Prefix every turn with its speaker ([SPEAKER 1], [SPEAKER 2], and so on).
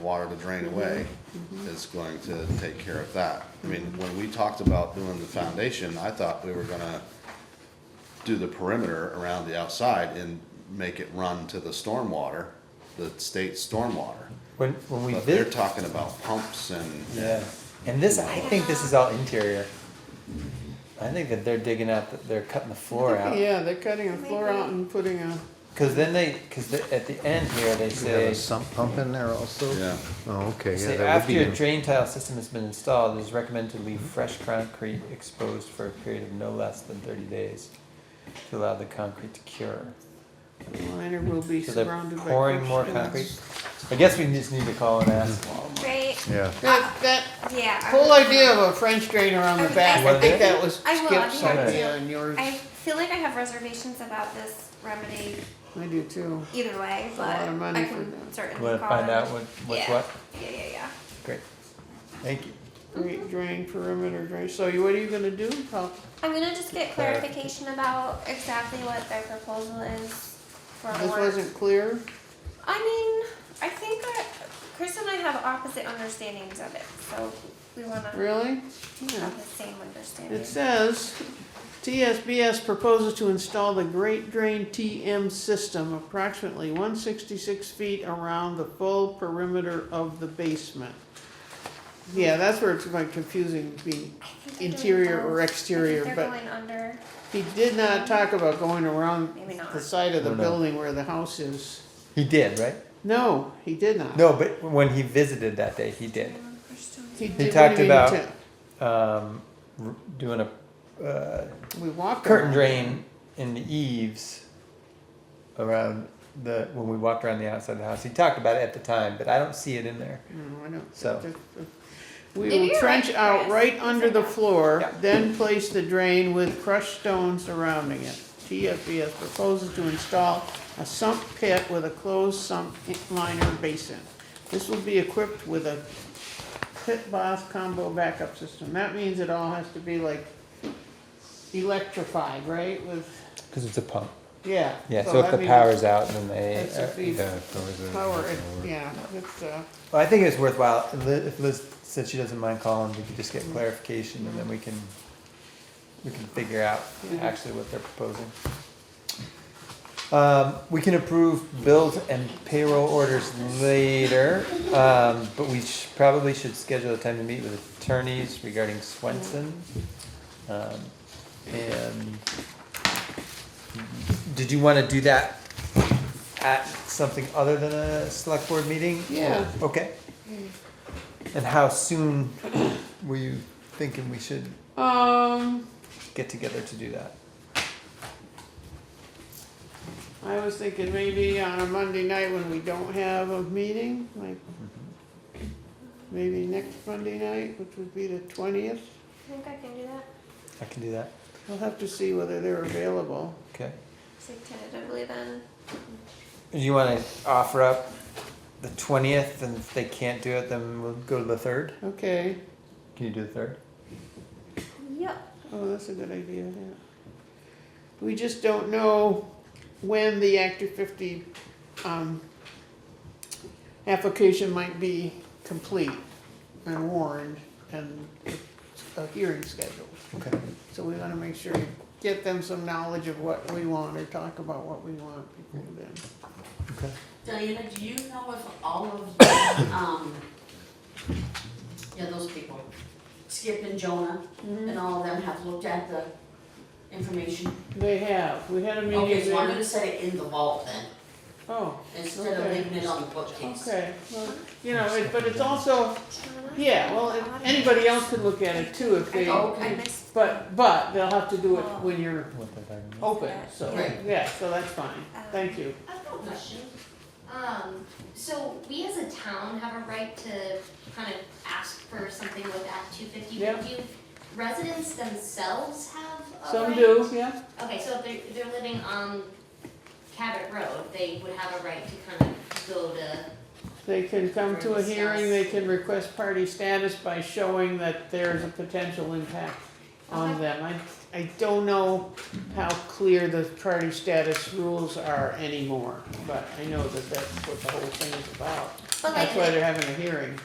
[SPEAKER 1] water to drain away is going to take care of that. I mean, when we talked about doing the foundation, I thought we were gonna do the perimeter around the outside and make it run to the stormwater, the state stormwater.
[SPEAKER 2] When, when we
[SPEAKER 1] But they're
[SPEAKER 2] visit,
[SPEAKER 1] talking about pumps and.
[SPEAKER 2] yeah, and this, I think this is all interior. I think that they're digging out, that they're cutting the floor out.
[SPEAKER 3] Yeah, they're cutting a floor out and putting a,
[SPEAKER 2] Cause then they, cause the- at the end here, they
[SPEAKER 4] You have
[SPEAKER 2] say,
[SPEAKER 4] a sump pump in there also?
[SPEAKER 1] Yeah.
[SPEAKER 4] Oh, okay, yeah,
[SPEAKER 2] say
[SPEAKER 4] that would
[SPEAKER 2] after
[SPEAKER 4] be,
[SPEAKER 2] your
[SPEAKER 4] in-
[SPEAKER 2] drain tile system has been installed, it is recommended to leave fresh concrete exposed for a period of no less than thirty days to allow the concrete to cure.
[SPEAKER 3] the liner will be
[SPEAKER 2] So they're
[SPEAKER 3] surrounded by.
[SPEAKER 2] pouring
[SPEAKER 3] crushed
[SPEAKER 2] more
[SPEAKER 3] stones.
[SPEAKER 2] concrete. I guess we just need to call and ask.
[SPEAKER 5] Right?
[SPEAKER 4] yeah.
[SPEAKER 3] That, that
[SPEAKER 5] Yeah. I
[SPEAKER 3] whole
[SPEAKER 5] will-
[SPEAKER 3] idea of a French drain around the back, I think that was
[SPEAKER 5] I will, I
[SPEAKER 3] Skip's
[SPEAKER 5] think I
[SPEAKER 3] idea
[SPEAKER 5] do.
[SPEAKER 3] and yours.
[SPEAKER 5] I feel like I have reservations about this remedy
[SPEAKER 3] I do too.
[SPEAKER 5] either way, but
[SPEAKER 3] lot of money
[SPEAKER 5] I
[SPEAKER 3] for
[SPEAKER 5] can
[SPEAKER 3] that.
[SPEAKER 5] certainly
[SPEAKER 2] Wanna
[SPEAKER 5] call
[SPEAKER 2] find
[SPEAKER 5] them.
[SPEAKER 2] out what, what's
[SPEAKER 5] yeah.
[SPEAKER 2] what?
[SPEAKER 5] Yeah, yeah, yeah.
[SPEAKER 2] Great. Thank you.
[SPEAKER 3] Great drain, perimeter drain. So you- what are you gonna do? How-
[SPEAKER 5] I'm gonna just get clarification about exactly what their proposal is for
[SPEAKER 3] This
[SPEAKER 5] more.
[SPEAKER 3] wasn't clear?
[SPEAKER 5] I mean, I think that Chris and I have opposite understandings of it, so we wanna
[SPEAKER 3] Really? Yeah.
[SPEAKER 5] have the same understanding.
[SPEAKER 3] It says, TSBS proposes to install the Great Drain TM system approximately one sixty-six feet around the full perimeter of the basement. Yeah, that's where it's like confusing, being
[SPEAKER 5] I think they're doing
[SPEAKER 3] interior or
[SPEAKER 5] both. I
[SPEAKER 3] exterior,
[SPEAKER 5] think they're
[SPEAKER 3] but
[SPEAKER 5] going under.
[SPEAKER 3] he did not talk about going around
[SPEAKER 5] Maybe not.
[SPEAKER 3] the side of the
[SPEAKER 2] No, no.
[SPEAKER 3] building where the house is.
[SPEAKER 2] He did, right?
[SPEAKER 3] No, he did not.
[SPEAKER 2] No, but when he visited that day, he did.
[SPEAKER 5] um, crushed stones.
[SPEAKER 3] He did-
[SPEAKER 2] He
[SPEAKER 3] what do
[SPEAKER 2] talked
[SPEAKER 3] you mean
[SPEAKER 2] about-
[SPEAKER 3] ta-
[SPEAKER 2] Um, r- doing a, uh,
[SPEAKER 3] We walked.
[SPEAKER 2] curtain
[SPEAKER 3] around.
[SPEAKER 2] drain in the eaves around the when we walked around the outside of the house. He talked about it at the time, but I don't see it in there.
[SPEAKER 3] No, I don't.
[SPEAKER 2] So-
[SPEAKER 3] We
[SPEAKER 5] Maybe
[SPEAKER 3] will
[SPEAKER 5] you're
[SPEAKER 3] trench
[SPEAKER 5] right,
[SPEAKER 3] out
[SPEAKER 5] Chris.
[SPEAKER 3] right under the floor,
[SPEAKER 2] Yeah.
[SPEAKER 3] then place the drain with crushed stones surrounding it. TFBS proposes to install a sump pit with a closed sump liner basin. This will be equipped with a pit boss combo backup system. That means it all has to be like electrified, right, with,
[SPEAKER 2] Because it's a pump.
[SPEAKER 3] yeah.
[SPEAKER 2] Yeah, so, if
[SPEAKER 3] that
[SPEAKER 2] the
[SPEAKER 3] means
[SPEAKER 2] power's out, then they.
[SPEAKER 3] That's a fee.
[SPEAKER 2] yeah.
[SPEAKER 3] Power, yeah, it's, uh,
[SPEAKER 2] Well, I think it's worthwhile. Li- If Liz said she doesn't mind calling, we could just get clarification, and then we can we can figure out
[SPEAKER 3] Mhm.
[SPEAKER 2] actually what they're proposing. Um, we can approve bills and payroll orders later, um, but we sh- probably should schedule a time to meet with attorneys regarding Swenson. Um, and did you want to do that at something other than a select board meeting?
[SPEAKER 3] Yeah.
[SPEAKER 2] Okay. And how soon were you thinking we should
[SPEAKER 3] um,
[SPEAKER 2] get together to do that?
[SPEAKER 3] I was thinking maybe on a Monday night when we don't have a meeting, like maybe next Monday night, which would be the twentieth.
[SPEAKER 5] I think I can do that.
[SPEAKER 2] I can do that,
[SPEAKER 3] We'll have to see whether they're available.
[SPEAKER 2] okay?
[SPEAKER 5] So tentatively then.
[SPEAKER 2] Do you want to offer up the twentieth, and if they can't do it, then we'll go to the third?
[SPEAKER 3] Okay,
[SPEAKER 2] Can you do the third?
[SPEAKER 5] Yep.
[SPEAKER 3] oh, that's a good idea, yeah. We just don't know when the Act of fifty, um, application might be complete and warned and a hearing scheduled.
[SPEAKER 2] Okay.
[SPEAKER 3] So we wanna make sure, we get them some knowledge of what we want or talk about what we want before then.
[SPEAKER 2] Okay.
[SPEAKER 6] Diana, do you know if all of, the, um, yeah, those people, Skip and Jonah, and all of them have looked at the information?
[SPEAKER 3] They have, we had a
[SPEAKER 6] Okay,
[SPEAKER 3] meeting
[SPEAKER 6] so I'm
[SPEAKER 3] there.
[SPEAKER 6] gonna set it in the vault then,
[SPEAKER 3] Oh,
[SPEAKER 6] instead of
[SPEAKER 3] Okay.
[SPEAKER 6] leaving it on the bookcase.
[SPEAKER 3] okay, well, you know, it- but it's also, yeah, well, it- anybody else could look at it too if they,
[SPEAKER 6] Oh,
[SPEAKER 5] I missed.
[SPEAKER 3] but, but they'll have to do
[SPEAKER 7] Oh.
[SPEAKER 3] it when you're
[SPEAKER 2] What they're talking about.
[SPEAKER 3] open, so,
[SPEAKER 6] Right.
[SPEAKER 3] yeah, so that's fine, thank you.
[SPEAKER 7] I have a question. Um, so we as a town have a right to kind of ask for something with Act two fifty,
[SPEAKER 3] Yeah.
[SPEAKER 7] but do residents themselves have a
[SPEAKER 3] Some
[SPEAKER 7] right?
[SPEAKER 3] do, yeah,
[SPEAKER 7] Okay, so if they're, if they're living on Cabot Road, they would have a right to kind of go to,
[SPEAKER 3] they can come to a hearing, they can request party status by showing that there's a potential impact on
[SPEAKER 7] Okay.
[SPEAKER 3] them. I, I don't know how clear the party status rules are anymore, but I know that that's what the whole thing is about.
[SPEAKER 7] But like,
[SPEAKER 3] That's why they're having a hearing.